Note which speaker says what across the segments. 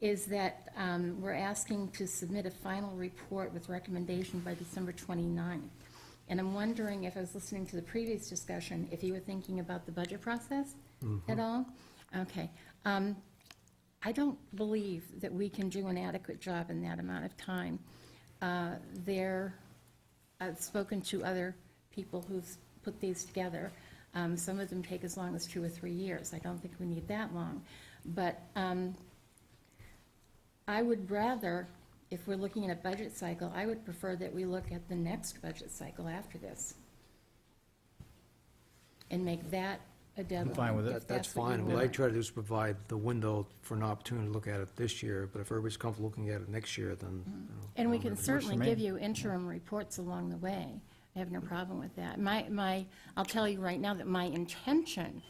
Speaker 1: is that um, we're asking to submit a final report with recommendation by December 29th. And I'm wondering if I was listening to the previous discussion, if you were thinking about the budget process at all? Okay. Um, I don't believe that we can do an adequate job in that amount of time. Uh, There, I've spoken to other people who've put these together. Um, Some of them take as long as two or three years. I don't think we need that long. But um, I would rather, if we're looking at a budget cycle, I would prefer that we look at the next budget cycle after this and make that a deadline.
Speaker 2: I'm fine with
Speaker 1: if
Speaker 2: it.
Speaker 1: that's
Speaker 3: That's
Speaker 1: what you
Speaker 3: fine. What I
Speaker 1: want.
Speaker 3: try to do is provide the window for an opportunity to look at it this year, but if everybody's comfortable looking at it next year, then. you know,
Speaker 1: And we
Speaker 3: I'm
Speaker 1: can
Speaker 3: ready.
Speaker 1: certainly
Speaker 2: me.
Speaker 1: give you interim reports along the way. I have no problem with that. My, my, I'll tell you right now that my intention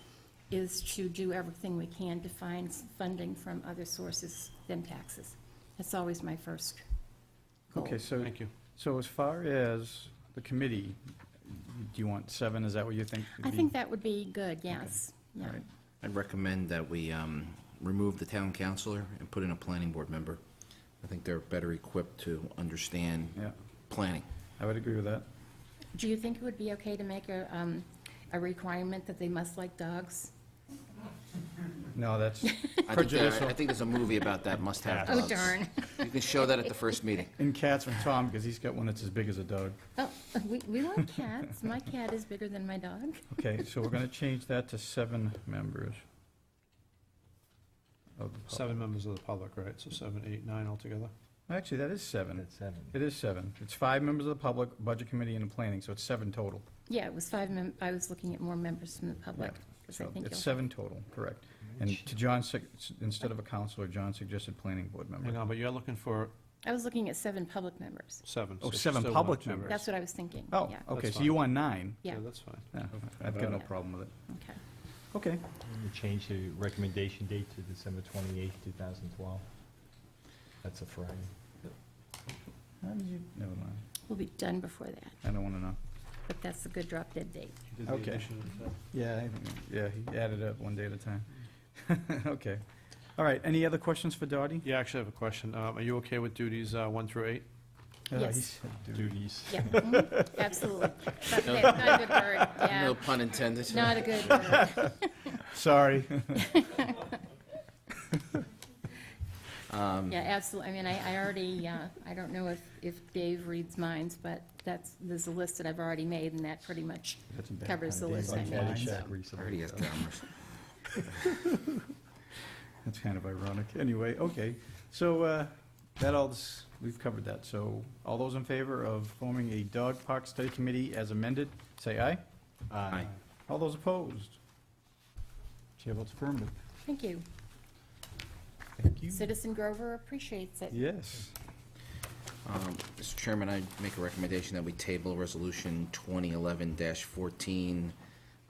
Speaker 1: is to do everything we can to find s- funding from other sources than taxes. That's always my first goal.
Speaker 4: Oh,
Speaker 2: Okay, so,
Speaker 3: Thank you.
Speaker 2: so as far as the committee, do you want seven? Is that what you think? would
Speaker 1: I
Speaker 2: be-
Speaker 1: think that would be good, yes, yeah.
Speaker 2: All right.
Speaker 5: I'd recommend that we um, remove the town councillor and put in a planning board member. I think they're better equipped to understand
Speaker 2: Yeah,
Speaker 5: planning.
Speaker 2: I would agree with that.
Speaker 1: Do you think it would be okay to make a, um, a requirement that they must like dogs?
Speaker 2: No, that's
Speaker 5: I think there-
Speaker 2: prejudicial.
Speaker 5: I think there's a movie about that, must have
Speaker 1: Oh,
Speaker 5: dogs.
Speaker 1: darn.
Speaker 5: You can show that at the first meeting.
Speaker 2: And cats from Tom, because he's got one that's as big as a dog.
Speaker 1: Oh, we, we want cats. My cat is bigger than my dog.
Speaker 2: Okay, so we're gonna change that to seven members. of the pub-
Speaker 4: Seven members of the public, right, so seven, eight, nine altogether?
Speaker 2: Actually, that is seven.
Speaker 6: seven.
Speaker 2: It is seven. It's five members of the public, budget committee, and the planning, so it's seven total.
Speaker 1: Yeah, it was five mem, I was looking at more members from the public. 'cause I
Speaker 2: So
Speaker 1: think
Speaker 2: it's
Speaker 1: you'll-
Speaker 2: seven total, correct. And to John, sug- s- instead of a counselor, John suggested planning board member.
Speaker 4: Hang on, but you're looking for
Speaker 1: I was looking at seven public members.
Speaker 4: seven.
Speaker 2: Oh,
Speaker 4: so it's
Speaker 2: seven
Speaker 4: still
Speaker 2: public
Speaker 4: one, two,
Speaker 2: members.
Speaker 4: right?
Speaker 1: That's what I was thinking.
Speaker 2: Oh,
Speaker 1: Yeah,
Speaker 2: okay,
Speaker 4: That's
Speaker 2: so you want nine?
Speaker 1: yeah,
Speaker 4: Yeah, that's fine.
Speaker 2: Yeah, I've got no problem with it.
Speaker 1: okay.
Speaker 2: Okay.
Speaker 6: We change the recommendation date to December twenty-eighth, two thousand twelve. That's a Friday.
Speaker 2: How did you? Never mind.
Speaker 1: We'll be done before that,
Speaker 2: I don't want to know.
Speaker 1: but that's a good drop dead date.
Speaker 4: You did the
Speaker 2: Okay.
Speaker 4: addition of that.
Speaker 2: Yeah, I think- yeah, he added up one day at a time. Okay. All right, any other questions for Dottie?
Speaker 4: Yeah, actually, I have a question. Um, Are you okay with duties uh, one through eight?
Speaker 2: Uh, he
Speaker 1: Yes.
Speaker 2: said do-
Speaker 6: Duties.
Speaker 1: Yeah, mhm, absolutely. But that's Not a good word,
Speaker 5: No
Speaker 1: yeah.
Speaker 5: pun intended.
Speaker 1: Not a good word.
Speaker 2: Sorry.
Speaker 5: Um,
Speaker 1: Yeah, absolutely. I mean, I, I already, uh, I don't know if, if Dave reads minds, but that's, there's a list that I've already made, and that pretty much
Speaker 6: That's a bad
Speaker 1: covers the
Speaker 6: idea.
Speaker 1: list I
Speaker 6: Like
Speaker 1: made, so.
Speaker 6: Caddyshack recently,
Speaker 5: Already has
Speaker 6: so.
Speaker 5: cameras.
Speaker 2: That's kind of ironic. Anyway, okay. So uh, that all, s- we've covered that. So all those in favor of forming a dog park study committee as amended, say aye.
Speaker 5: Aye.
Speaker 2: All those opposed? Chair votes affirmative.
Speaker 1: Thank you.
Speaker 2: Mm-hmm. Thank you.
Speaker 1: Citizen Grover appreciates it.
Speaker 2: Yes.
Speaker 5: Um, Mr. Chairman, I make a recommendation that we table Resolution 2011-14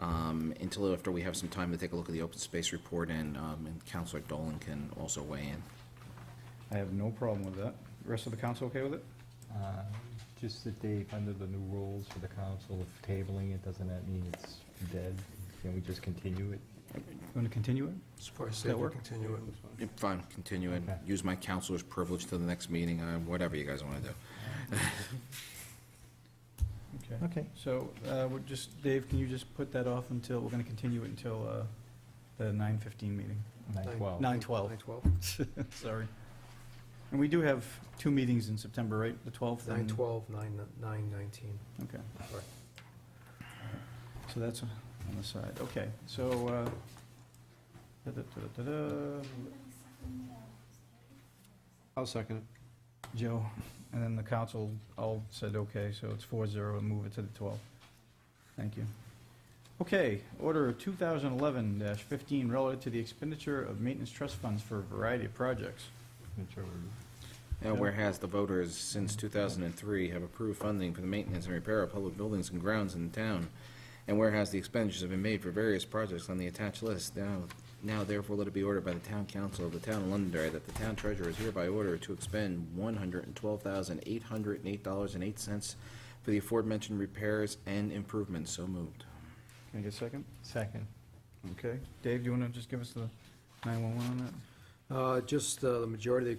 Speaker 5: um, until after we have some time to take a look at the open space report, and um, and Counselor Dolan can also weigh in.
Speaker 2: I have no problem with that. Rest of the council okay with it?
Speaker 6: Uh, Just that Dave, under the new rules for the council of tabling it, doesn't that mean it's dead? Can we just continue it?
Speaker 2: Want to continue it?
Speaker 3: It's probably
Speaker 2: that
Speaker 3: safe to
Speaker 2: work?
Speaker 3: continue it.
Speaker 5: If I'm continuing,
Speaker 6: Okay.
Speaker 5: use my counselor's privilege to the next meeting, uh, whatever you guys want to do.
Speaker 2: Okay.
Speaker 6: Okay.
Speaker 2: So, uh, we're just, Dave, can you just put that off until, we're gonna continue it until, uh, the nine fifteen meeting?
Speaker 6: Nine,
Speaker 3: Nine.
Speaker 6: twelve.
Speaker 2: Nine twelve,
Speaker 3: Nine twelve?
Speaker 2: sorry. And we do have two meetings in September, right, the twelfth?
Speaker 3: Nine twelve, nine, nine nineteen.
Speaker 2: Okay,
Speaker 3: Sorry.
Speaker 2: so that's on the side, okay, so, uh, da-da-da-da-da,
Speaker 4: I'll second it.
Speaker 2: Joe, and then the council all said okay, so it's four zero, and move it to the twelfth. Thank you. Okay, order two thousand eleven fifteen relative to the expenditure of maintenance trust funds for a variety of projects.
Speaker 6: Majority.
Speaker 5: Now, whereas the voters since 2003 have approved funding for the maintenance and repair of public buildings and grounds in the town, and whereas the expenditures have been made for various projects on the attached list, now, now therefore let it be ordered by the town council of the town of Londonderry that the town treasurer is hereby ordered to expend $112,808.08 for the aforementioned repairs and improvements. So moved.
Speaker 2: Can I get a second?
Speaker 6: Second.
Speaker 2: Okay. Dave, do you want to just give us the 911 on that?
Speaker 3: Uh, Just uh, the majority of the